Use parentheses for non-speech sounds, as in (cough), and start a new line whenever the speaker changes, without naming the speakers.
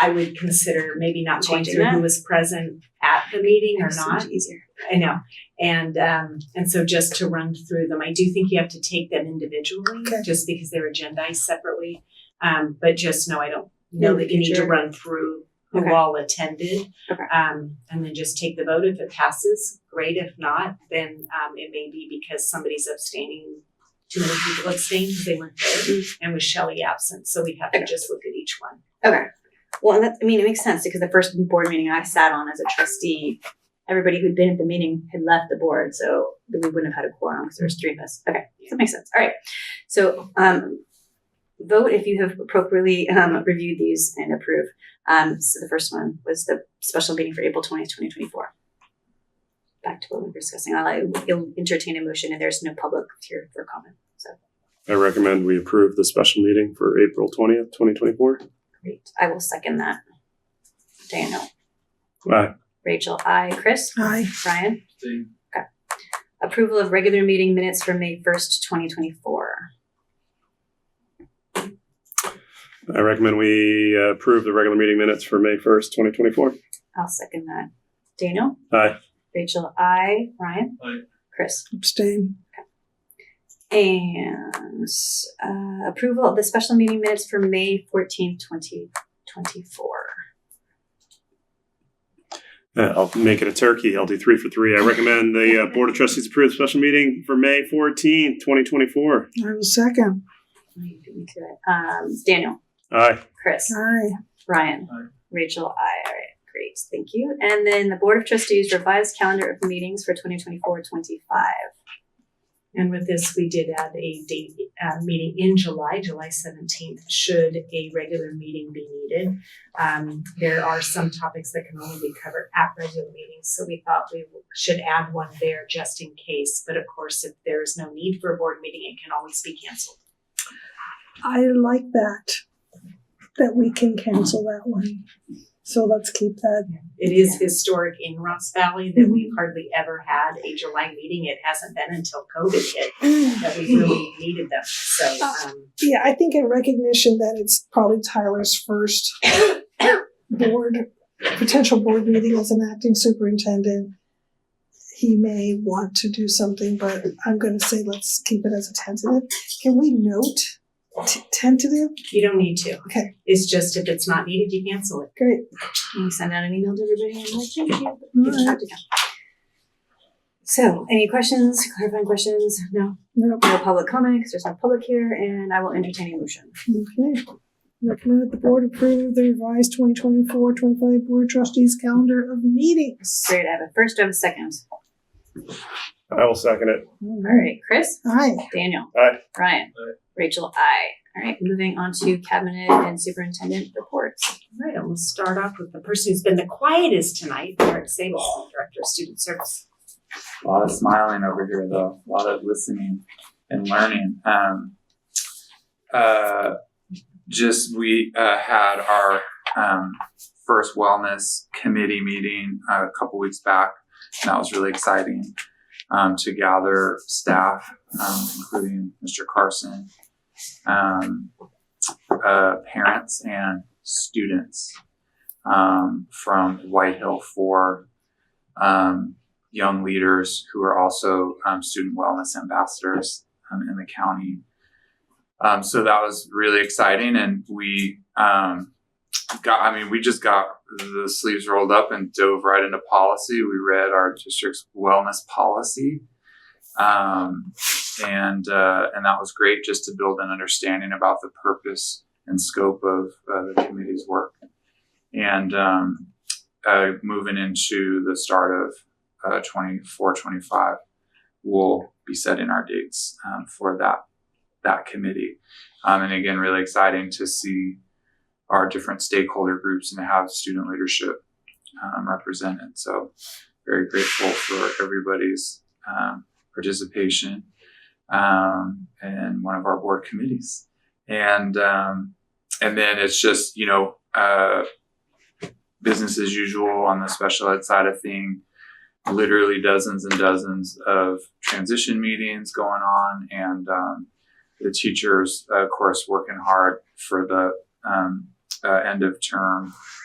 I would consider maybe not going
Changing
through who
that.
was present at the meeting or
It's so much
not.
Easier.
I know. And um and so just to run through them, I do think you have to take them individually,
Okay.
just because they're agendized separately. Um but just know I don't know
In the
that you need to
future.
run through who
Okay.
all attended.
Okay.
Um and then just take the vote. If it passes, great. If not, then um it may be because somebody's abstaining. Too many people abstained because they weren't there and with Shelley absent. So we have to
Mm. Okay.
just look at each one.
Okay. Well, and that, I mean, it makes sense because the first board meeting I sat on as a trustee, everybody who'd been at the meeting had left the board, so we wouldn't have had a quorum because there was three of us. Okay, that makes sense. All right. So, um, vote if you have appropriately um, reviewed these and approve. Um, so the first one was the special meeting for April twentieth, twenty twenty four. Back to what we were discussing. I'll, I'll entertain a motion, and there's no public here for comment. So
I recommend we approve the special meeting for April twentieth, twenty twenty-four.
great. I will second that. Daniel.
Aye.
Rachel, I, Chris,
Aye.
Brian. Approval of regular meeting minutes for May first, twenty twenty four.
I recommend we uh, approve the regular meeting minutes for May first, twenty twenty-four.
I'll second that. Daniel,
Aye.
Rachel, I, Ryan.
Aye.
Chris.
Abstain.
And uh, approval of the special meeting minutes for May fourteenth, twenty twenty four.
Uh, I'll make it a turkey. I'll do three for three. I recommend the uh, Board of Trustees approve the special meeting for May fourteenth, twenty twenty-four.
I will second.
Um, Daniel,
Aye.
Chris,
Aye.
Ryan,
Aye.
Rachel, I. All right, great, thank you. And then the Board of Trustees revised calendar of meetings for 2024-25.
And with this, we did add a date, uh, meeting in July, July seventeenth, should a regular meeting be needed. Um, there are some topics that can only be covered at regular meetings, so we thought we should add one there just in case. But of course, if there is no need for a board meeting, it can always be canceled.
I like that, that we can cancel that one. So let's keep that.
It is historic in Ross Valley that we've hardly ever had a July meeting. It hasn't been until COVID hit that we really needed them, so, um,
(clears throat) Yeah, I think in recognition that it's probably Tyler's first (coughs) board, potential board meeting as an acting superintendent. He may want to do something, but I'm going to say let's keep it as a tentative. Can we note t- tentative?
you don't need to.
Okay.
It's just if it's not needed, you cancel it.
Great.
Can you send out an email to everybody and like, thank you.
All
Good
right.
job to them. So, any questions, clarifying questions? No,
Nope.
no public comment because there's no public here, and I will entertain a motion.
Okay. Recommend that the board approve the revised 2024-25 board trustees calendar of meetings.
Great, I have a first, I have a second.
I will second it.
All right, Chris,
Aye.
Daniel.
Aye.
Ryan.
Aye.
Rachel, I. All right, moving on to cabinet and superintendent reports.
All right, and we'll start off with the person who's been the quietest tonight, Eric Sable, Director of Student Service.
A lot of smiling over here, though. A lot of listening and learning. Um, uh, just we uh, had our um, first wellness committee meeting uh, a couple weeks back, and that was really exciting um, to gather staff, um, including Mr. Carson, um, uh, parents, and students um, from Whitehill for. Um, young leaders who are also um, student wellness ambassadors um, in the county. Um, so that was really exciting, and we um, got. I mean, we just got the sleeves rolled up and dove right into policy. We read our district's wellness policy, um, and uh, and that was great just to build an understanding about the purpose and scope of uh, the committee's work, and um, uh, moving into the start of uh, 24, 25, we'll be setting our dates um, for that that committee. Um, and again, really exciting to see our different stakeholder groups and have student leadership um, represented. So very grateful for everybody's um, participation um, in one of our board committees. And um, and then it's just you know uh, business as usual on the special ed side of things literally dozens and dozens of transition meetings going on and um, the teachers of course working hard for the um, uh, end of term